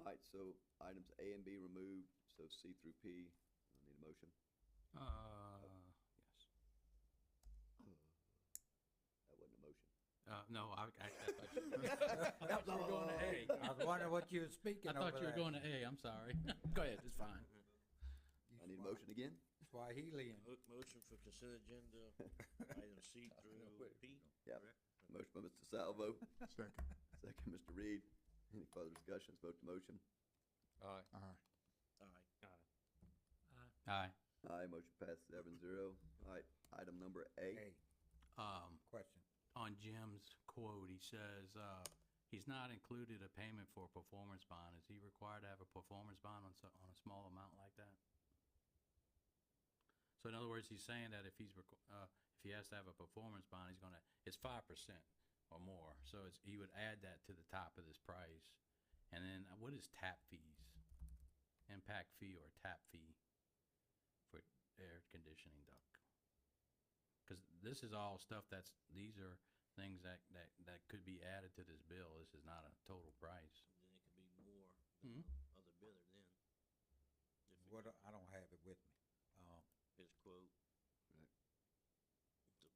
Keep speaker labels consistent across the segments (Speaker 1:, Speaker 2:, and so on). Speaker 1: All right, so items A and B removed, so C through P, I need a motion.
Speaker 2: Uh, yes.
Speaker 1: That wasn't a motion.
Speaker 2: Uh, no, I, I, I thought you I thought you were going to A.
Speaker 3: Oh. I was wondering what you were speaking
Speaker 2: I
Speaker 3: over
Speaker 2: thought you were
Speaker 3: there.
Speaker 2: going to A, I'm sorry. Go ahead, it's fine.
Speaker 1: I need a motion again?
Speaker 3: Swahili.
Speaker 4: Mo- Motion for consent agenda, item C through P.
Speaker 1: Motion by Mr. Salvo,
Speaker 5: Second.
Speaker 1: second Mr. Reed. Any further discussions, vote to motion?
Speaker 5: Aye.
Speaker 4: All right,
Speaker 2: Aye.
Speaker 1: Aye, motion passes seven zero. All right, item number A.
Speaker 3: Hey,
Speaker 2: Um,
Speaker 3: question.
Speaker 2: on Jim's quote, he says, uh, he's not included a payment for a performance bond. Is he required to have a performance bond on, so- on a small amount like that? So in other words, he's saying that if he's, requ- uh, if he has to have a performance bond, he's gonna, it's five percent or more. So it's, he would add that to the top of this price. And then uh, what is tap fees? Impact fee or tap fee for air conditioning duct? Because this is all stuff that's, these are things that, that, that could be added to this bill. This is not a total price.
Speaker 4: then it could be more than the other bidder then. If it-
Speaker 3: What, I don't have it with me. Um,
Speaker 4: his quote.
Speaker 1: Right.
Speaker 4: The,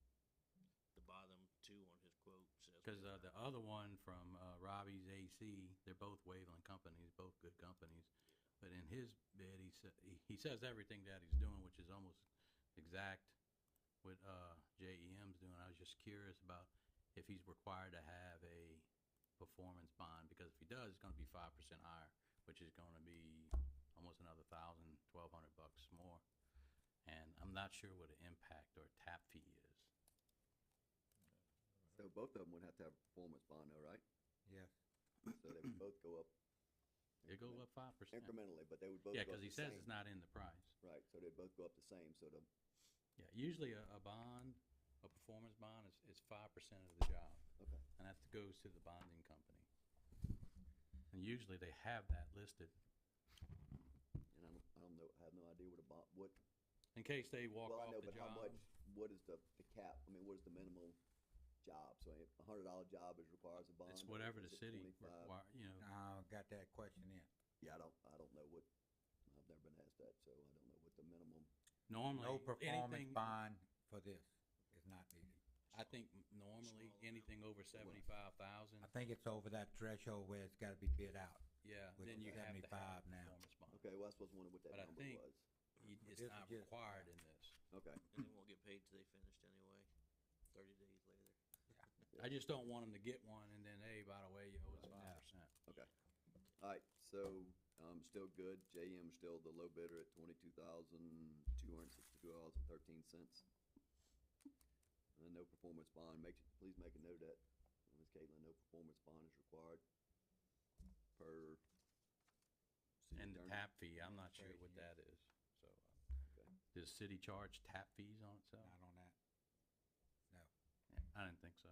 Speaker 4: the bottom two on his quote says.
Speaker 2: Because uh, the other one from uh, Robbie's AC, they're both Waveland companies, both good companies. But in his bid, he sa- he- he says everything that he's doing, which is almost exact what uh, JEM's doing. I was just curious about if he's required to have a performance bond, because if he does, it's gonna be five percent higher, which is gonna be almost another thousand, twelve hundred bucks more. And I'm not sure what an impact or tap fee is.
Speaker 1: So both of them would have to have a performance bond though, right?
Speaker 3: yes.
Speaker 1: So they would both go up
Speaker 2: It goes up five percent.
Speaker 1: incrementally, but they would both go
Speaker 2: Yeah,
Speaker 1: up the
Speaker 2: because he says it's
Speaker 1: same.
Speaker 2: not in the price.
Speaker 1: Right, so they'd both go up the same, so the,
Speaker 2: Yeah, usually a, a bond, a performance bond is, is five percent of the job,
Speaker 1: okay,
Speaker 2: and that goes to the bonding company. And usually they have that listed,
Speaker 1: and I don't, I don't know, I have no idea what a bond, what,
Speaker 2: in case they walk
Speaker 1: well, I
Speaker 2: off
Speaker 1: know,
Speaker 2: the
Speaker 1: but how
Speaker 2: job.
Speaker 1: much, what is the, the cap, I mean, what is the minimum job? So a hundred dollar job is requires a bond.
Speaker 2: It's
Speaker 1: or
Speaker 2: whatever the
Speaker 1: is it
Speaker 2: city
Speaker 1: 25?
Speaker 2: require, you know,
Speaker 3: I got that question in.
Speaker 1: Yeah, I don't, I don't know what, I've never been asked that, so I don't know what the minimum,
Speaker 2: normally,
Speaker 3: No performance
Speaker 2: anything, I
Speaker 3: bond for this is not needed.
Speaker 2: think m- normally,
Speaker 4: Small amount.
Speaker 2: anything over seventy-five thousand,
Speaker 3: I think it's over that threshold where it's gotta be bid out.
Speaker 2: yeah,
Speaker 3: Which
Speaker 2: then
Speaker 3: is
Speaker 2: you have to have
Speaker 3: 75
Speaker 2: a
Speaker 3: now.
Speaker 2: performance bond.
Speaker 1: okay, well, I was wondering what that
Speaker 2: But I
Speaker 1: number
Speaker 2: think-
Speaker 1: was.
Speaker 2: You- It's
Speaker 3: This
Speaker 2: not
Speaker 3: is-
Speaker 2: required in this.
Speaker 1: Okay,
Speaker 4: And they won't get paid till they finished anyway, thirty days later.
Speaker 2: I just don't want them to get one and then, hey, by the way, you owe us five percent.
Speaker 1: okay. All right, so, um, still good, JM's still the low bidder at twenty-two thousand, two hundred and sixty-two dollars and thirteen cents. And no performance bond, make, please make a note of that, Ms. Caitlin, no performance bond is required per. city
Speaker 2: And the
Speaker 1: attorney.
Speaker 2: tap fee, I'm not sure
Speaker 3: Thirty
Speaker 2: what
Speaker 3: years.
Speaker 2: that is, so. uh, Does city charge tap fees on itself?
Speaker 3: Not on that.
Speaker 2: Yeah, I didn't think so.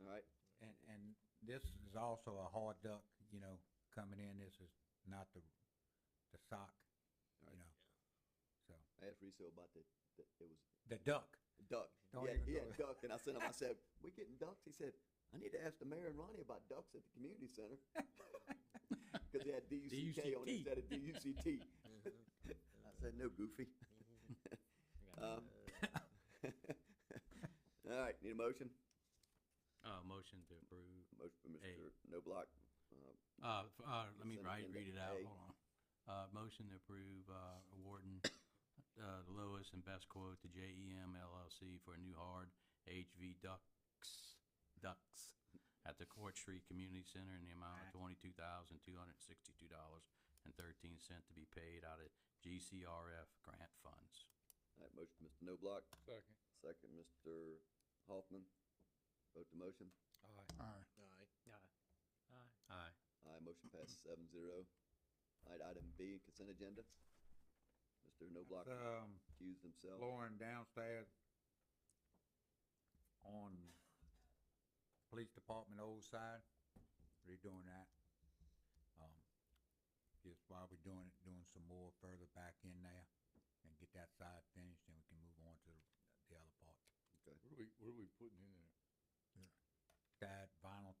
Speaker 1: All right,
Speaker 3: And, and this is also a hard duck, you know, coming in. This is not the, the sock,
Speaker 1: Right.
Speaker 3: you know. So,
Speaker 1: I asked Riso about the, the, it was
Speaker 3: the duck.
Speaker 1: duck.
Speaker 3: Don't
Speaker 1: Yeah,
Speaker 3: even
Speaker 1: he
Speaker 3: go
Speaker 1: had
Speaker 3: there.
Speaker 1: duck, and I sent him. I said, "We getting ducks?" He said, "I need to ask the mayor and Ronnie about ducks at the community center because they had DUCK on it
Speaker 2: DUCT.
Speaker 1: instead of DUCT." I said, "No, goofy."
Speaker 4: Mm-hmm.
Speaker 1: um, all right, need a motion?
Speaker 2: Uh, motion to approve,
Speaker 1: Motion for
Speaker 2: Hey.
Speaker 1: Mr. No Block. Uh,
Speaker 2: uh, f- uh, let me
Speaker 1: Consent
Speaker 2: write,
Speaker 1: agenda
Speaker 2: read it out,
Speaker 1: A.
Speaker 2: hold on. Uh, motion to approve, uh, awarding, uh, the lowest and best quote to E JEM LLC for a new hard HV ducts, ducts at the Court Street Community Center in the amount of twenty-two thousand, two hundred and sixty-two dollars and thirteen cent to be paid out of GCRF grant funds.
Speaker 1: all right, motion for Mr. No Block.
Speaker 6: Second.
Speaker 1: Second, Mr. Hoffman. Vote the motion.
Speaker 6: Aye.
Speaker 5: Aye.
Speaker 4: Aye.
Speaker 6: Aye.
Speaker 2: Aye.
Speaker 1: Aye, motion passes seven zero. All right, item B, consent agenda. Mr. No Block
Speaker 3: Um,
Speaker 1: accused himself.
Speaker 3: Lauren downstairs on police department old side, redoing that. Um, Just while we're doing it, doing some more further back in there and get that side finished, then we can move on to the other part.
Speaker 6: What are we, what are we putting in there?
Speaker 3: That vinyl